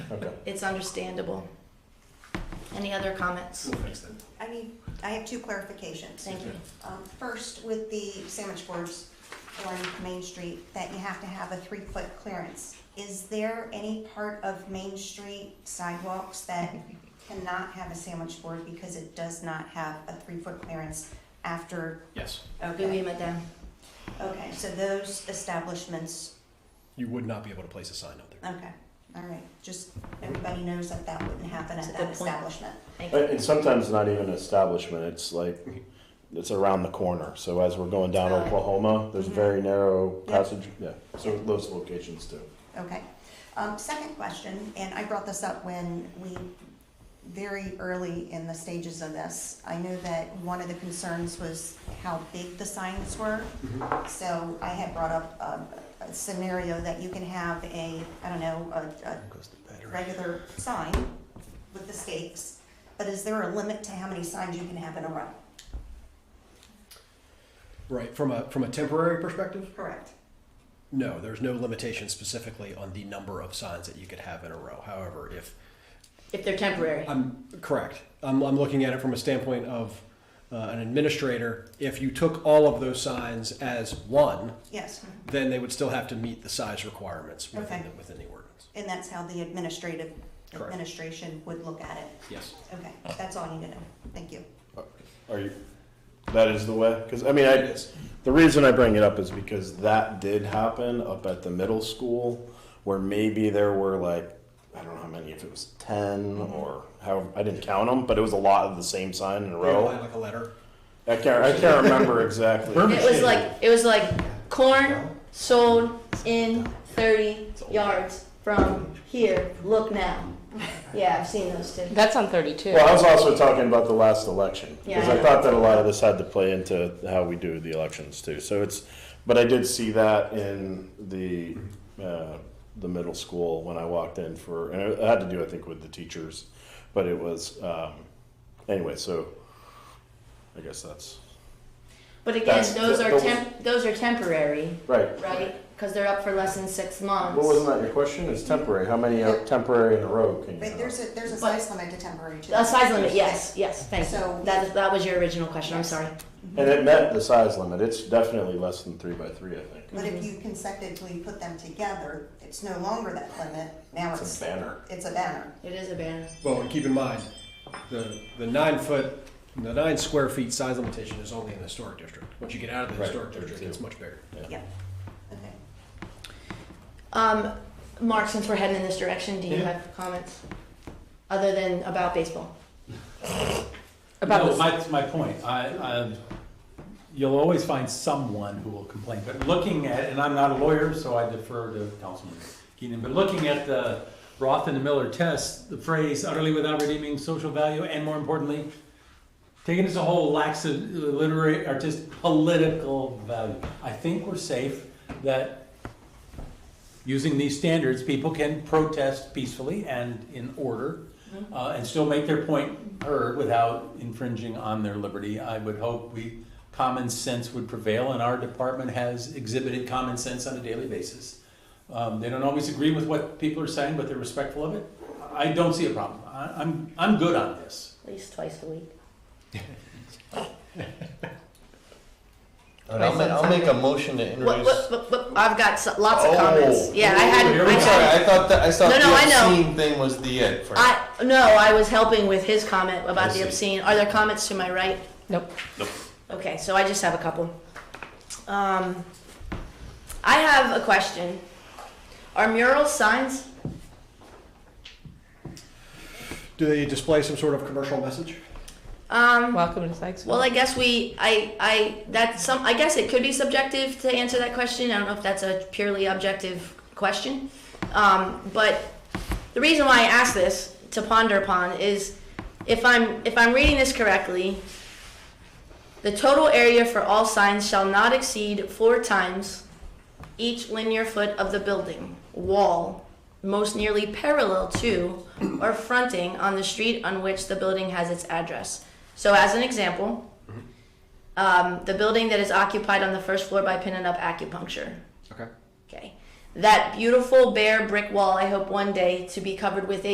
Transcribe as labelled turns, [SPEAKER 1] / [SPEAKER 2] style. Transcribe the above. [SPEAKER 1] it's understandable. Any other comments?
[SPEAKER 2] We'll fix that.
[SPEAKER 3] I mean, I have two clarifications.
[SPEAKER 1] Thank you.
[SPEAKER 3] Um, First, with the sandwich boards on Main Street, that you have to have a three-foot clearance. Is there any part of Main Street sidewalks that cannot have a sandwich board because it does not have a three-foot clearance after?
[SPEAKER 2] Yes,
[SPEAKER 1] Oui,
[SPEAKER 3] Okay,
[SPEAKER 1] madame.
[SPEAKER 3] okay, so those establishments,
[SPEAKER 2] you would not be able to place a sign out there.
[SPEAKER 3] okay, all right, just, everybody knows that that wouldn't happen
[SPEAKER 1] That's a
[SPEAKER 3] at
[SPEAKER 1] good
[SPEAKER 3] that
[SPEAKER 1] point.
[SPEAKER 3] establishment.
[SPEAKER 1] Thank
[SPEAKER 4] And
[SPEAKER 1] you.
[SPEAKER 4] and sometimes not even an establishment, it's like, it's around the corner. So as we're going down
[SPEAKER 1] Right.
[SPEAKER 4] Oklahoma, there's
[SPEAKER 1] Mm-hmm.
[SPEAKER 3] Mhm.
[SPEAKER 4] very narrow
[SPEAKER 3] Yeah.
[SPEAKER 4] passage, yeah, so those locations too.
[SPEAKER 3] Okay. Um, second question, and I brought this up when we, very early in the stages of this, I know that one of the concerns was how big the signs were. So I had brought up a, a scenario that you can have a, I don't know, a, a regular sign with the stakes, but is there a limit to how many signs you can have in a row?
[SPEAKER 2] Right, from a, from a temporary perspective,
[SPEAKER 3] Correct.
[SPEAKER 2] no, there's no limitation specifically on the number of signs that you could have in a row. However, if,
[SPEAKER 1] If they're temporary.
[SPEAKER 2] I'm correct, I'm, I'm looking at it from a standpoint of uh, an administrator, if you took all of those signs as one,
[SPEAKER 3] Yes,
[SPEAKER 2] then they would still have to meet the size requirements within,
[SPEAKER 3] Okay.
[SPEAKER 2] the- within the ordinance.
[SPEAKER 3] and that's how the administrative,
[SPEAKER 2] Correct.
[SPEAKER 3] administration would look at it.
[SPEAKER 2] Yes.
[SPEAKER 3] Okay, that's all I need to know. Thank you.
[SPEAKER 4] Are you, that is the way? Because, I mean, I, the reason I bring it up is because that did happen up at the middle school where maybe there were like, I don't know how many, if it was 10
[SPEAKER 1] Mm-hmm.
[SPEAKER 4] or how, I didn't count them, but it was a lot of the same sign in a
[SPEAKER 2] They
[SPEAKER 4] row.
[SPEAKER 2] had Like a letter.
[SPEAKER 4] I can't, I can't remember exactly.
[SPEAKER 1] It was like, it was like corn sold in thirty yards from here, look now. Yeah, I've seen those too.
[SPEAKER 5] That's on 32.
[SPEAKER 4] Well, I was also talking about the last election because
[SPEAKER 1] Yeah.
[SPEAKER 4] I thought that a lot of this had to play into how we do the elections too. So it's, but I did see that in the uh, the middle school when I walked in for, and it had to do I think with the teachers, but it was um, anyway. So I guess that's
[SPEAKER 1] But again,
[SPEAKER 4] That's-
[SPEAKER 1] those are
[SPEAKER 4] those-
[SPEAKER 1] temp, those are temporary,
[SPEAKER 4] right.
[SPEAKER 1] right? Because they're up for less than six
[SPEAKER 4] What wasn't
[SPEAKER 1] months.
[SPEAKER 4] that your question? Is temporary? How many are temporary in a row can you?
[SPEAKER 3] But
[SPEAKER 4] have?
[SPEAKER 3] there's a, there's a
[SPEAKER 1] But-
[SPEAKER 3] size limit to temporary too.
[SPEAKER 1] A size limit, yes, yes, thank
[SPEAKER 3] So-
[SPEAKER 1] you. That, that was your original question, I'm
[SPEAKER 3] Yes.
[SPEAKER 1] sorry.
[SPEAKER 4] and it met the size limit. It's definitely less than three by three. I think
[SPEAKER 3] But
[SPEAKER 1] Mm-hmm.
[SPEAKER 3] if you consecutively put them together, it's no longer that limit, now
[SPEAKER 4] it's
[SPEAKER 3] it's,
[SPEAKER 4] a banner.
[SPEAKER 3] it's a banner.
[SPEAKER 1] It is a banner.
[SPEAKER 2] Well, and keep in mind, the, the nine foot, the nine square feet size limitation is only in the historic district. Once you get out of the
[SPEAKER 4] Right,
[SPEAKER 2] historic district,
[SPEAKER 4] thirty-two.
[SPEAKER 2] it's much bigger.
[SPEAKER 3] Yep. Okay.
[SPEAKER 1] Um, Mark, since we're heading in this direction, do you
[SPEAKER 6] Yeah.
[SPEAKER 1] have comments? Other than about baseball?
[SPEAKER 5] About
[SPEAKER 6] no,
[SPEAKER 5] this-
[SPEAKER 6] my, my point. I, I, you'll always find someone who will complain. But looking at, and I'm not a lawyer, so I defer to Councilman Keenan. But looking at the Roth and the Miller test, the phrase "utterly without redeeming social value," and more importantly, taken as a whole, lacks a literary, artistic, political value. I think we're safe that using these standards, people can protest peacefully and in order, uh, and still make their point heard without infringing on their liberty. I would hope we, common sense would prevail, and our department has exhibited common sense on a daily basis. Um, they don't always agree with what people are saying, but they're respectful of it. I don't see a problem. I, I'm, I'm good on this.
[SPEAKER 1] At least twice a week.
[SPEAKER 7] All right, I'll, ma- I'll make a motion to
[SPEAKER 1] What,
[SPEAKER 7] introduce.
[SPEAKER 1] what, what, what- I've got so- lots of
[SPEAKER 7] Oh.
[SPEAKER 1] comments. Yeah, I had,
[SPEAKER 6] Here
[SPEAKER 1] I
[SPEAKER 6] we
[SPEAKER 7] I'm sorry,
[SPEAKER 1] had,
[SPEAKER 7] I thought that I thought
[SPEAKER 1] No, no,
[SPEAKER 7] the
[SPEAKER 1] I know.
[SPEAKER 7] obscene thing was the it for
[SPEAKER 1] I, no, I was helping with his comment about
[SPEAKER 7] I
[SPEAKER 1] the
[SPEAKER 7] see.
[SPEAKER 1] obscene. Are there comments to my right?
[SPEAKER 5] Nope.
[SPEAKER 1] Okay, so I just have a couple. Um, I have a question. Are murals signs?
[SPEAKER 2] Do they display some sort of commercial message?
[SPEAKER 1] Um,
[SPEAKER 5] Welcome to Sykesville.
[SPEAKER 1] Well, I guess we, I, I, that's some, I guess it could be subjective to answer that question. I don't know if that's a purely objective question. Um, but the reason why I ask this to ponder upon is if I'm, if I'm reading this correctly, the total area for all signs shall not exceed four times each linear foot of the building, wall, most nearly parallel to or fronting on the street on which the building has its address. So, as an example, um, the building that is occupied on the first floor by Pin and Up Acupuncture.
[SPEAKER 2] Okay.
[SPEAKER 1] Okay. That beautiful bare brick wall, I hope one day to be covered with a